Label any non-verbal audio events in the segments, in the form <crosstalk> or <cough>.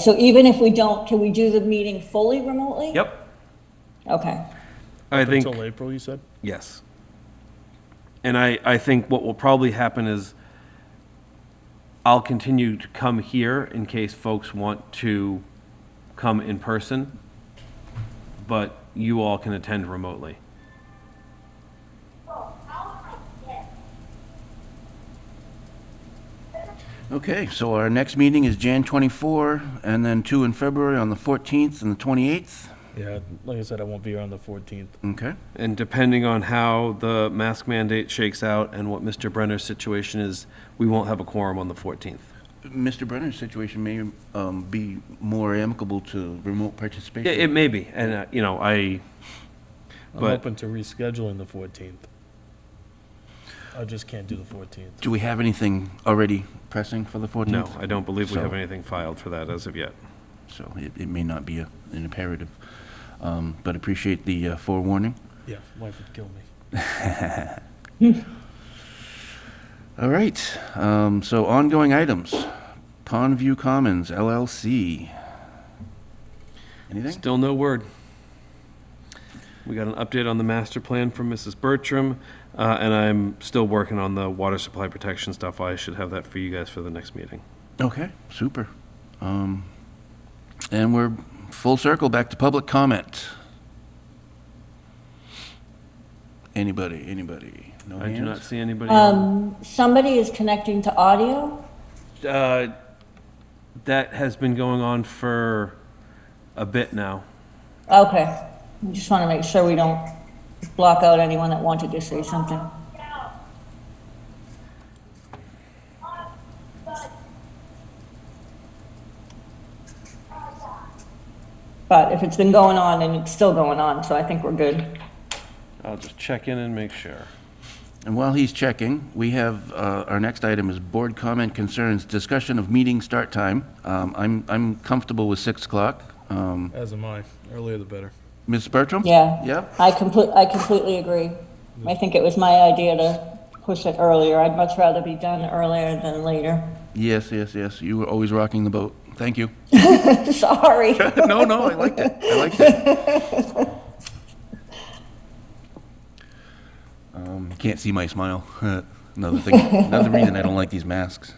So even if we don't, can we do the meeting fully remotely? Yep. Okay. I think, Until April, you said? yes. And I, I think what will probably happen is I'll continue to come here in case folks want to come in person, but you all can attend remotely. Okay, so our next meeting is Jan 24, and then two in February on the 14th and the 28th. Yeah, like I said, I won't be here on the 14th. Okay, And depending on how the mask mandate shakes out and what Mr. Brenner's situation is, we won't have a quorum on the 14th. Mr. Brenner's situation may um, be more amicable to remote participation. It, it may be, and, uh, you know, I, I'm But- open to rescheduling the 14th. I just can't do the 14th. Do we have anything already pressing for the 14th? no, I don't believe we have So- anything filed for that as of yet. So it, it may not be a, an imperative, um, but appreciate the uh, forewarning. Yeah, wife would kill me. All right, um, so ongoing items. Pondview Commons LLC. Anything? Still no word. We got an update on the master plan from Mrs. Bertram, uh, and I'm still working on the water supply protection stuff. I should have that for you guys for the next meeting. Okay, super. Um, and we're full circle back to public comment. Anybody, anybody? No I do not hands? see anybody. Um, somebody is connecting to audio. Uh, That has been going on for a bit now. Okay. We Just want to make sure we don't block out anyone that wanted to say something. But if it's been going on and it's still going on, so I think we're good. I'll just check in and make sure. And while he's checking, we have, uh, our next item is board comment concerns, discussion of meeting start time. Um, I'm, I'm comfortable with 6 o'clock. Um, As am I. Earlier the better. Ms. Bertram? Yeah. Yep, I complete, I completely agree. I think it was my idea to push it earlier. I'd much rather be done earlier than later. <laughs> yes, yes, yes, you were always rocking the boat. Thank you. Sorry. <laughs> No, no, I liked it, I liked it. <laughs> Um, Can't see my smile. <laughs> Another thing, another reason I don't like these masks.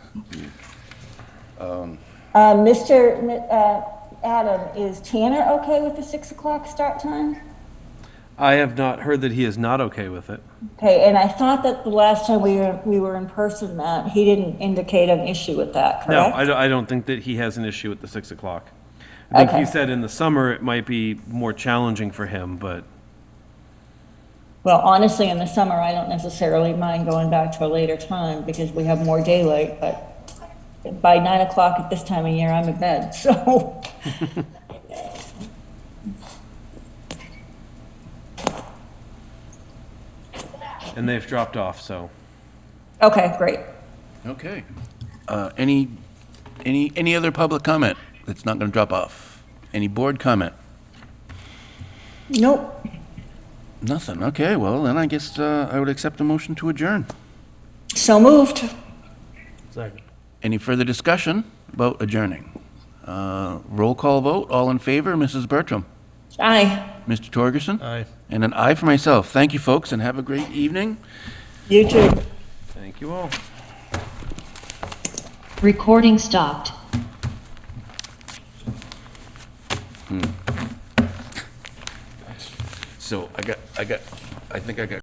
Uh, Mr. Mi- uh, Adam, is Tanner okay with the six o'clock start time? I have not heard that he is not okay with it. Okay, and I thought that the last time we were, we were in person, Matt, he didn't indicate an issue with that, No, correct? I don't, I don't think that he has an issue with the 6 o'clock. I think he Okay. said in the summer it might be more challenging for him, but Well, honestly, in the summer, I don't necessarily mind going back to a later time because we have more daylight, but by nine o'clock at this time of year, I'm in bed, <laughs> so. and they've dropped off, so. Okay, great. Okay. Uh, Any, any, any other public comment that's not going to drop off? Any board comment? Nope. Nothing, okay, well, then I guess uh, I would accept a motion to adjourn. So moved. Second. Any further discussion about adjourning? Uh, Roll call vote, all in favor, Mrs. Bertram? Aye. Mr. Torgerson? Aye. And an aye for myself. Thank you, folks, and have a great evening. You too. Thank you all. Recording stopped. So I got, I got, I think I got